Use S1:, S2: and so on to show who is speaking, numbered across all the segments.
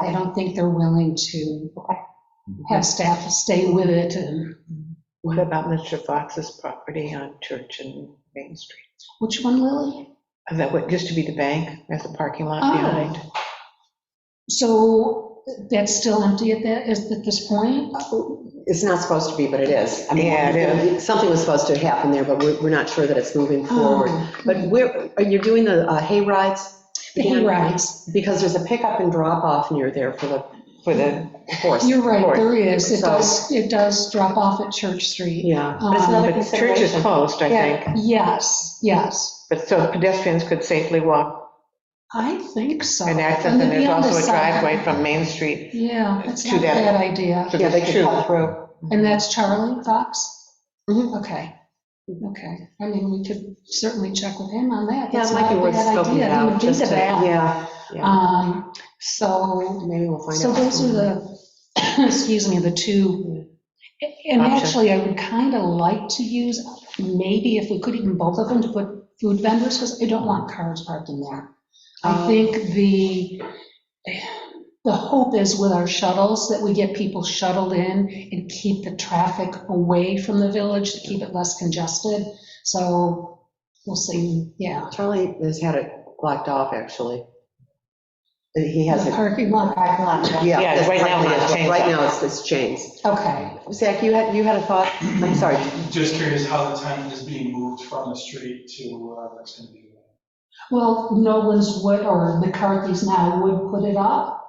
S1: I don't think they're willing to have staff stay with it and,
S2: What about Mr. Fox's property on Church and Main Street? Uh,
S1: which one, Lily?
S2: That what used to be the bank, there's a parking lot
S1: Oh.
S2: behind.
S1: So that's still empty at that, is at this point?
S3: It's not supposed to be, but it is. I mean,
S2: Yeah, it
S3: Something was supposed to happen there, but we're, we're not sure that it's
S1: Oh.
S3: moving forward.
S1: Ah,
S3: But where, are you doing the uh, hay rides?
S1: The hay rides.
S3: Because there's a pickup and drop off near there for the
S2: For the,
S3: horse.
S1: You're right, there is. It
S3: So-
S1: does, it does drop off at Church Street.
S3: Yeah. Um,
S1: But it's another
S2: but church is closed, I think,
S1: Yes, yes,
S2: but so pedestrians could safely walk
S1: I think so.
S2: and access,
S1: On the
S2: and there's
S1: Beyond
S2: also a
S1: side.
S2: driveway from Main Street.
S1: Yeah, that's
S2: to
S1: not a
S2: that-
S1: bad idea.
S2: So
S3: Yeah, they
S2: there's
S3: could
S2: two.
S3: cut through.
S1: And that's Charlie Fox?
S3: Mhm.
S1: Okay, okay. I mean, we could certainly check with him on that.
S3: Yeah,
S1: That's
S3: it might
S1: not
S3: be
S1: a
S3: worth
S1: bad
S3: scoping
S1: idea.
S3: it
S1: I
S3: out.
S1: didn't think
S3: just
S1: of
S3: to-
S1: that.
S3: Yeah,
S1: Um, so,
S3: maybe we'll find out.
S1: so those are the, excuse me, the two. And
S2: Options.
S1: actually, I would kind of like to use, maybe if we could even both of them to put food vendors, because I don't want cars parked in there. I
S3: Um.
S1: think the, the hope is with our shuttles, that we get people shuttled in and keep the traffic away from the village, to keep it less congested. So we'll see, yeah.
S3: Charlie has had it blocked off, actually. Uh, He has
S1: The
S3: it.
S1: Parking lot, parking lot,
S3: Yeah,
S2: Yeah,
S3: that's
S2: right now it has chains
S3: Right
S2: on.
S3: now, it's, it's chains.
S1: okay.
S3: Zach, you had, you had a thought? I'm sorry.
S4: Just curious how the tenant is being moved from the street to whatever it's gonna be.
S1: Well, Nolan's would, or McCarthy's now would put it up,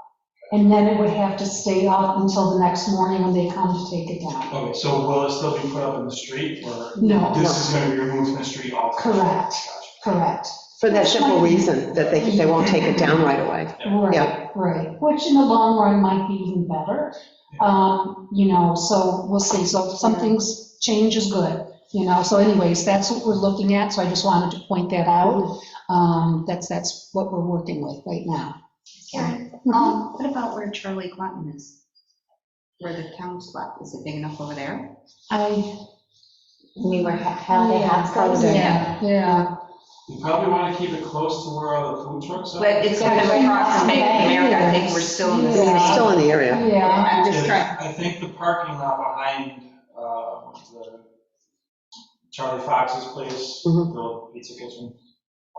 S1: and then it would have to stay up until the next morning when they come to take it down.
S4: Okay, so will it still be put up in the street, or
S1: No,
S4: this is gonna be removed from the street altogether?
S1: Correct. correct,
S3: For that simple reason, that they, they won't take it down right away.
S1: right,
S3: Yeah.
S1: right, which in the long run might be even better. Um, you know, so we'll see, so something's, change is good, you know, so anyways, that's what we're looking at, so I just wanted to point that out. Um, that's, that's what we're working with right now.
S5: Karen, um, what about where Charlie Quanton is? Where the town's lot, is it big enough over there?
S1: I,
S6: mean, where how they
S3: Oh,
S6: have closed
S5: Yeah.
S6: it.
S1: yeah, yeah.
S4: You probably wanna keep it close to where all the food trucks are.
S5: But it's kind of across from Bank of America, I think we're still in the same.
S3: It's still in the area.
S1: Yeah,
S5: I'm just trying,
S4: Yeah, I think the parking lot behind, uh, the Charlie Fox's place, the
S5: Mm-hmm.
S3: Mhm.
S4: old pizza kitchen,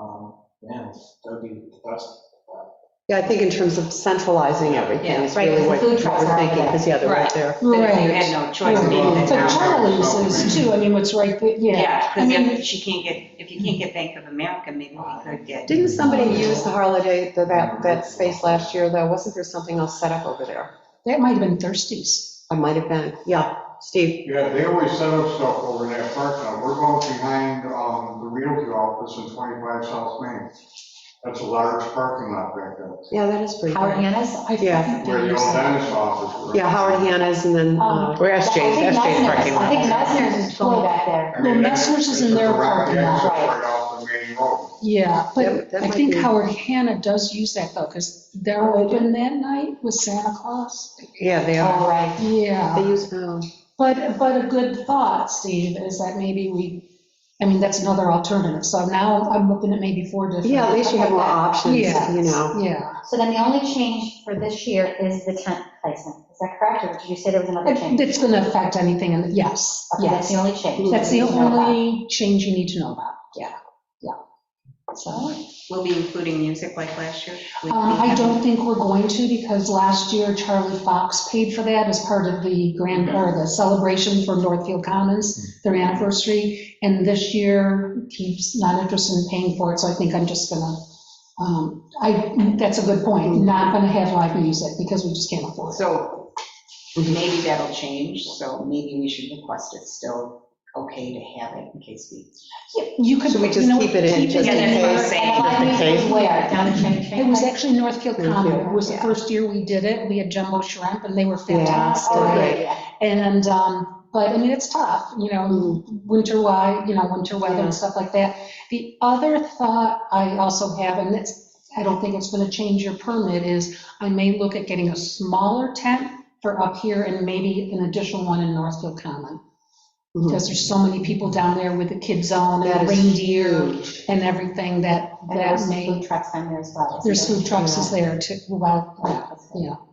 S4: um, man, that'd be the best.
S3: Yeah, I think in terms of centralizing everything is
S6: Yeah, right,
S3: really
S6: because
S3: what
S6: the food
S3: what
S6: trucks
S3: we're
S6: are
S3: thinking,
S6: there.
S3: because, yeah, they're right
S5: Right.
S3: there.
S5: that you
S1: Right.
S5: had no choice of being in the
S1: But
S5: town.
S1: Charlie's is too, I mean, what's right, there, yeah.
S5: Yeah,
S1: I mean-
S5: because if she can't get, if you can't get Bank of America, maybe we could get,
S3: Didn't somebody use the holiday, the- that, that space last year, though? Wasn't there something else set up over there?
S1: That might have been Thirsties.
S3: I might have been, yeah, Steve.
S7: Yeah, they always set up stuff over in that park now. We're going behind um, the realty office in 25 South Main. That's a large parking lot back there,
S3: Yeah, that is pretty
S6: Howard
S3: good.
S6: Hanna's,
S1: I think
S3: Yeah.
S7: where the old
S1: there's-
S7: dentist office was.
S3: Yeah, Howard Hanna's and then, uh,
S2: We're SJ's,
S6: I think
S2: SJ's parking
S6: Messner's- I
S2: lot.
S6: think Messner's is going back there.
S7: I mean,
S1: No,
S7: that's-
S1: Messner's is in
S7: it's a
S1: their
S7: direct
S1: parking lot.
S7: access Right off the main road.
S1: Yeah, but
S3: That- that
S1: I
S3: might
S1: think
S3: be-
S1: Howard Hanna does use that though, because they're open that night with Santa Claus.
S2: Yeah, they are.
S6: Oh,
S3: Uh,
S6: right.
S3: they
S1: Yeah,
S3: use, oh,
S1: but, but a good thought, Steve, is that maybe we, I mean, that's another alternative. So now I'm looking at maybe four different.
S3: yeah, at least you have more options,
S1: Yeah,
S3: you know.
S1: Yeah.
S6: So then the only change for this year is the tent placement. Is that correct? Or did you say there was another
S1: It-
S6: change?
S1: It's going to affect anything, and yes,
S6: Okay, That's
S1: Uh, yes.
S6: the only change.
S1: That's the
S6: that we know about.
S1: only change you need to know about, yeah, yeah. So, um,
S5: we'll be including music like last year. with
S1: Uh, I
S5: the-
S1: don't think we're going to, because last year Charlie Fox paid for that as part of the grand, or the celebration for Northfield Commons, their anniversary, and this year he's not interested in paying for it, so I think I'm just gonna, um, I, that's a good point, not gonna have live music, because we just can't afford it.
S5: So maybe that'll change, so maybe we should request it's still okay to have it in case we.
S1: You could,
S3: Should we
S1: you
S3: just
S1: know,
S3: keep it in, just
S5: it
S3: in
S5: in.
S3: case?
S5: Same.
S6: And live
S2: Just in
S6: music
S2: case.
S6: is where? Down the train,
S1: It
S6: train
S1: was
S6: place?
S1: actually Northfield
S3: Northfield,
S1: Common. It was the
S3: yeah.
S1: first year we did it. We had Jumbo Shrimp, and they were
S3: Yeah,
S6: Oh, yeah,
S1: fantastic.
S6: yeah.
S1: And, um, but, I mean, it's tough, you know, winter wide, you know, winter weather
S3: Mm. Yeah.
S1: and stuff like that. The other thought I also have, and it's, I don't think it's going to change your permit, is I may look at getting a smaller tent for up here and maybe an additional one in Northfield Common.
S3: Mhm.
S1: Because there's so many people down there with the kids on
S3: That
S1: and
S3: is
S1: reindeer
S3: huge.
S1: and everything that
S5: And
S1: that
S5: there's
S1: may,
S5: food trucks on there as well. isn't
S1: there's
S5: there?
S1: food trucks is there too, well, yeah.